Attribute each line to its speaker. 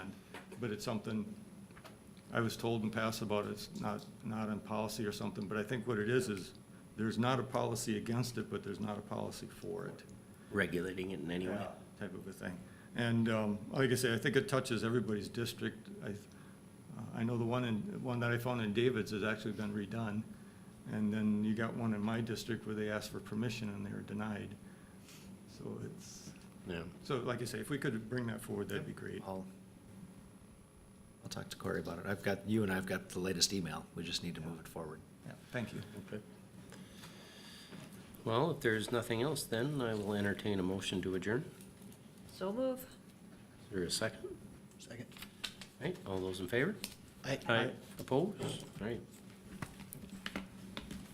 Speaker 1: but it's something I was told in past about it's not, not in policy or something, but I think what it is, is there's not a policy against it, but there's not a policy for it.
Speaker 2: regulating it in any way.
Speaker 1: Yeah, Type of a thing. And um, like I say, I think it touches everybody's district. I, th- uh, I know the one in, one that I found in David's has actually been redone. And then you got one in my district where they asked for permission and they were denied. So it's,
Speaker 2: Yeah.
Speaker 1: so like I say, if we could bring that forward, that'd be great.
Speaker 3: I'll, I'll talk to Corey about it. I've got, you and I have got the latest email. We just need to move it forward.
Speaker 1: Yeah, Thank you.
Speaker 2: Okay. Well, if there's nothing else, then I will entertain a motion to adjourn.
Speaker 4: So move.
Speaker 2: Is there a second?
Speaker 3: Second.
Speaker 2: Right, all those in favor? Opposed? All right,